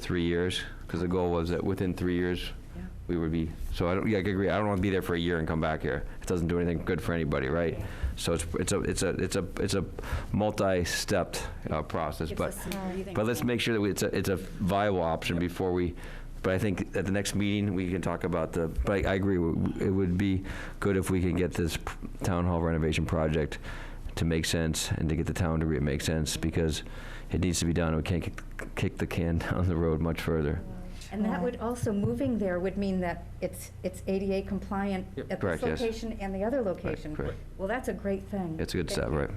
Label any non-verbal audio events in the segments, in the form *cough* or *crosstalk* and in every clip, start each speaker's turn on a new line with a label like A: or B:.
A: three years, because the goal was that within three years, we would be, so I don't, yeah, I agree, I don't want to be there for a year and come back here. It doesn't do anything good for anybody, right? So it's, it's a, it's a, it's a, it's a multi-stepped uh, process,
B: Gives
A: but,
B: us some breathing
A: but let's
B: room.
A: make sure that we- it's a, it's a viable option before we, but I think at the next meeting, we can talk about the, but I I agree, it would be good if we can get this p- town hall renovation project to make sense and to get the town to re- make sense, because it needs to be done, we can't kick- kick the can *laughs* down the road much further.
B: And that would also, moving there would mean that it's, it's ADA compliant at this
A: Correct, yes.
B: location and the other location.
A: correct.
B: Well, that's a great thing.
A: It's a good step, right?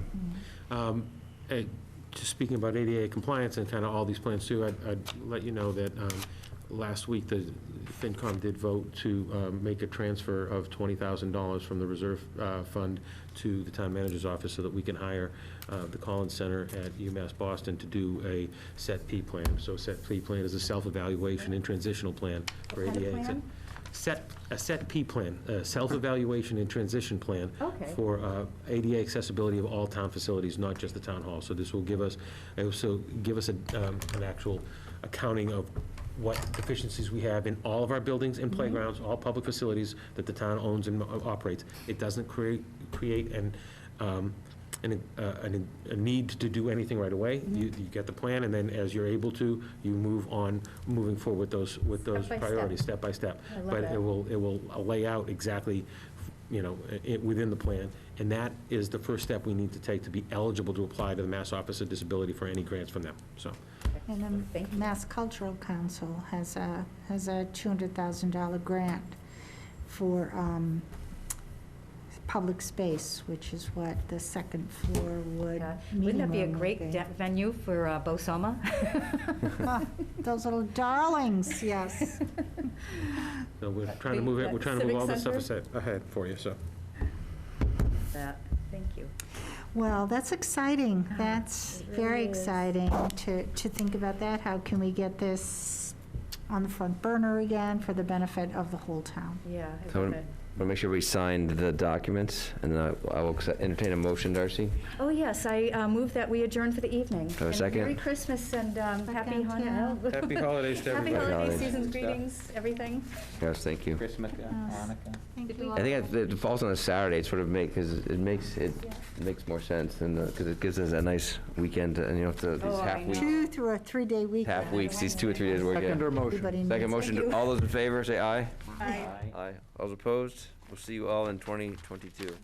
C: Um, eh, Just speaking about ADA compliance and kind of all these plans too, I'd, I'd let you know that um, last week, the FinCom did vote to um, make a transfer of $20,000 from the reserve uh, fund to the town manager's office so that we can hire uh, the Collins Center at UMass Boston to do a set P plan. So set P plan is a self-evaluation and transitional plan for
B: What
C: ADA.
B: kind of
C: It's a
B: plan?
C: Set, a set P plan, a self-evaluation and transition plan
B: Okay.
C: for for uh, ADA accessibility of all town facilities, not just the town hall. So this will give us, it will so give us a, um, an actual accounting of what deficiencies we have in all of our buildings
B: Mm-hmm.
C: and playgrounds, all public facilities that the town owns and uh, operates. It doesn't create, create an, um, an, uh, an- a need to do anything right away.
B: Mm-hmm.
C: You, you get the plan, and then as you're able to, you move on, moving forward with those, with those
B: by step.
C: priorities, step by step.
B: I love
C: But
B: that.
C: it will, it will lay out exactly, you know, it, within the plan. And that is the first step we need to take to be eligible to apply to the Mass Office of Disability for any grants from them, so.
B: Um,
D: And
B: thank
D: the
B: you.
D: Mass Cultural Council has a, has a $200,000 grant for um, public space, which is what the second floor would
B: Yeah. Wouldn't that be a
D: minimum would
B: great
D: be.
B: de- venue for uh, *laughs* Bosoma?
D: *laughs* Ah, Those little
B: *laughs*
D: darlings, yes.
C: So we're trying to move it, we're trying to move all this stuff
B: Civic
C: ahead for you, so.
B: That- Thank you.
D: Well, that's exciting.
B: Ah,
D: That's
B: it
D: very
B: really is.
D: exciting to, to think about that. How can we get this on the front burner again for the benefit of the whole town?
B: Yeah. I
A: So-
B: love it.
A: We'll make sure we signed the documents, and then I- I will accept- entertain a motion, Darcy.
B: Oh, yes, I uh, move that we adjourn for the evening.
A: a
B: And
A: second?
B: Merry Christmas and um, happy
D: Second, yeah.
B: Hanukkah.
C: Happy holidays to
B: *laughs* Happy
C: everybody.
B: holiday
A: Holidays.
B: seasons, greetings, everything.
A: Yes, thank you.
E: Christmas, yeah, Hanukkah.
D: Thank
B: Did
D: you
B: we-
D: all.
A: I think it it falls on a Saturday, it sort of make, because it makes, it makes more sense than, because it gives us a nice weekend, and you know, the-
B: Oh,
A: these
B: I
A: half
B: know.
A: weeks,
D: Two through a three-day weekend.
A: half weeks, these two or three days we're
E: Second or
A: getting.
E: motion?
D: Everybody needs
A: Second
D: it.
A: motion, all those in favor, say aye.
B: Bye.
E: Aye.
A: Aye. All those opposed? We'll see you all in 2022.